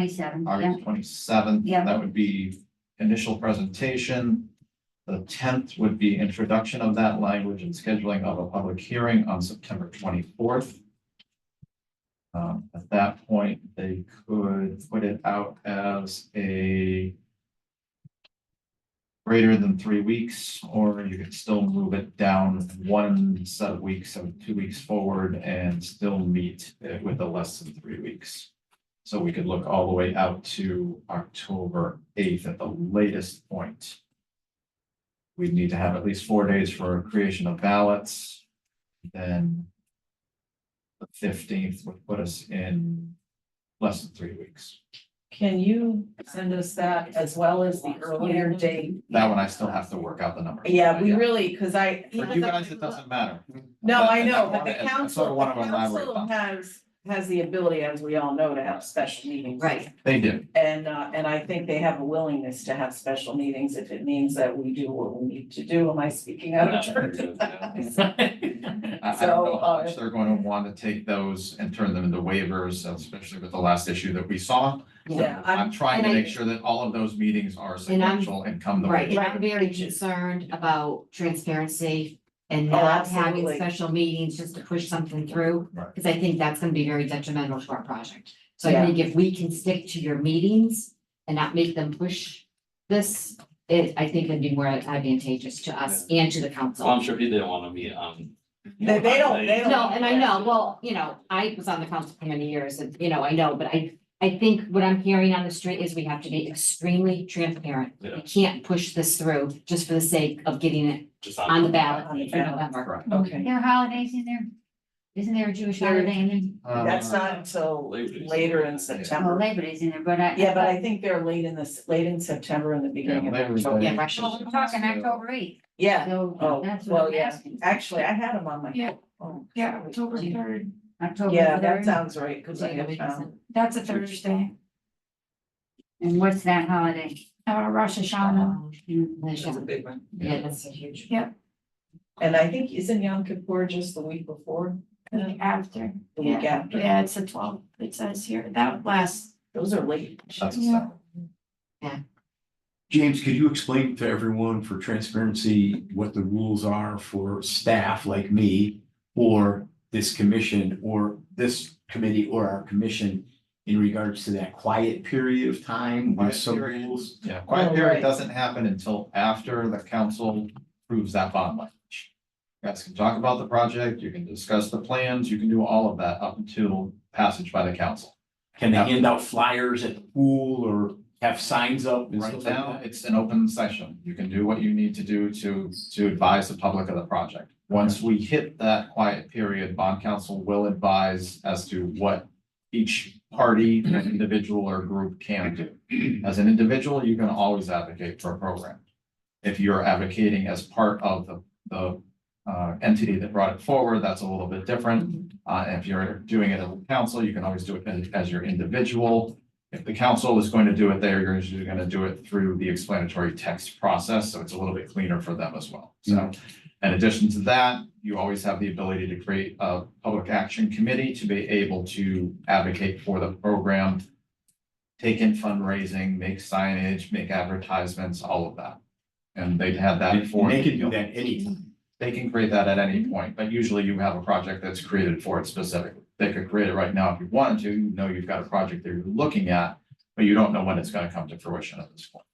Twenty-seven, yeah, August twenty-seventh. Yeah. That would be initial presentation. The tenth would be introduction of that language and scheduling of a public hearing on September twenty-fourth. Um, at that point, they could put it out as a greater than three weeks, or you could still move it down one set of weeks, so two weeks forward and still meet uh, with a less than three weeks. So we could look all the way out to October eighth at the latest point. We'd need to have at least four days for creation of ballots, then. The fifteenth would put us in less than three weeks. Can you send us that as well as the earlier date? That one I still have to work out the numbers. Yeah, we really, because I. For you guys, it doesn't matter. No, But- I and know, but wanna- the and I council, sort of the wanna elaborate council on that. has, has the ability, as we all know, to have special meetings. right, They do, And, uh, and I think they have a willingness to have special meetings if it means that we do what we need to do. Am I speaking out of turn? I, I don't know how much uh, they're going to want to take those and turn them into waivers, especially with the last issue that we saw. Yeah, I'm, I'm trying to and I- make sure that all of those meetings are And I'm- sequential and come the right, way. and I'm they- very concerned about transparency and Oh, not having absolutely. special meetings just to push something through. Right. Cause I think that's gonna be very detrimental to our project. So Yeah. I think if we can stick to your meetings and not make them push this, it, I think it'd be more advantageous to us and to the council. Well, I'm sure he didn't wanna um, meet on. They- they don't- they don't- No, and I know, well, you know, I was on the council for many years and, you know, I know, but I, I think what I'm hearing on the street is we have to be extremely transparent. Yeah. We can't push this through just for the sake of getting it Just on the ballot On for the ballot. November. okay. There are holidays in there, isn't there a Jewish There- holiday in there? Uh, That's not until later in Well, September. Labor Day's in there, but I. Yeah, but I think they're late in this, late in September and the beginning of Labor October. Day. Yeah, Russia. Well, we're talking October eighth, Yeah, so Oh, that's well, what I'm yeah. asking. actually, I had them on my. Yeah. phone. Yeah, October Yeah. third, October Yeah, that third, sounds right, because I had found. that's a Thursday, and what's that holiday? uh, Rosh Hashanah, big one. Um, Yeah, that's a huge. Yeah. And I think isn't Yom Kippur just the week before, the week after, the week after? yeah, it's the twelfth, it says here, that lasts. Those are late. That's a Yeah. separate. James, could you explain to everyone for transparency what the rules are for staff like me? Or this commission or this committee or our commission in regards to that quiet period of time? Quiet There's some period. rules. Yeah, quiet Oh, period right. doesn't happen until after the council approves that bond language. You Guys can talk about the project, you can discuss the plans, you can do all of that up until passage by the council. Can they hand out flyers at the pool or have signs up and Right stuff like now, that? it's an open session. You can do what you need to do to, to advise the public of the project. Once we hit that quiet period, bond council will advise as to what each party, individual or group can do. As an individual, you can always advocate for a program. If you're advocating as part of the, the uh, entity that brought it forward, that's a little bit different. Uh, if you're doing it as a council, you can always do it as, as your individual. If the council is going to do it, they're usually going to do it through the explanatory text process, so it's a little bit cleaner for them as well. So in addition to that, you always have the ability to create a public action committee to be able to advocate for the program, take in fundraising, make signage, make advertisements, all of that. And they'd have that And for. They can do that anytime. They can create that at any point, but usually you have a project that's created for it specifically. They could create it right now if you wanted to, you know you've got a project that you're looking at, but you don't know when it's gonna come to fruition at this point.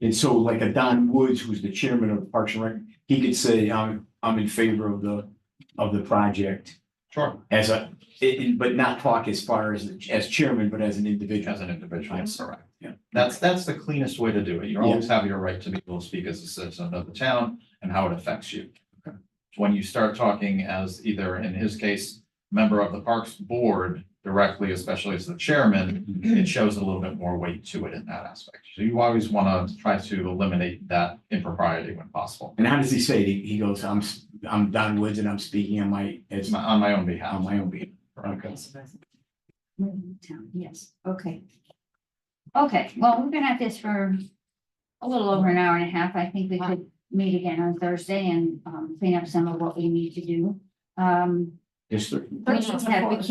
And so like a Don Woods, who's the chairman of Parks and Rec, he could say, I'm, I'm in favor of the, of the project. Sure. As a, it- it- but not talk as far as, as chairman, but as an individual. As an individual, that's correct. Yeah. That's, that's the cleanest way to do it. You always have your right to be able to speak as a citizen of the town and how it affects you. When you start talking as either, in his case, member of the Parks Board directly, especially as the chairman, it shows a little bit more weight to it in that aspect. So you always want to try to eliminate that impropriety when possible, And how does he say it? He he goes, I'm, s- I'm Don Woods and I'm speaking on my, It's as my- my, on my own on behalf. my own behalf. Okay. Town, Yes, okay. Okay, well, we've been at this for a little over an hour and a half. I think we could meet again on Thursday and um clean up some of what we need to do. Um, history. We should have, we can't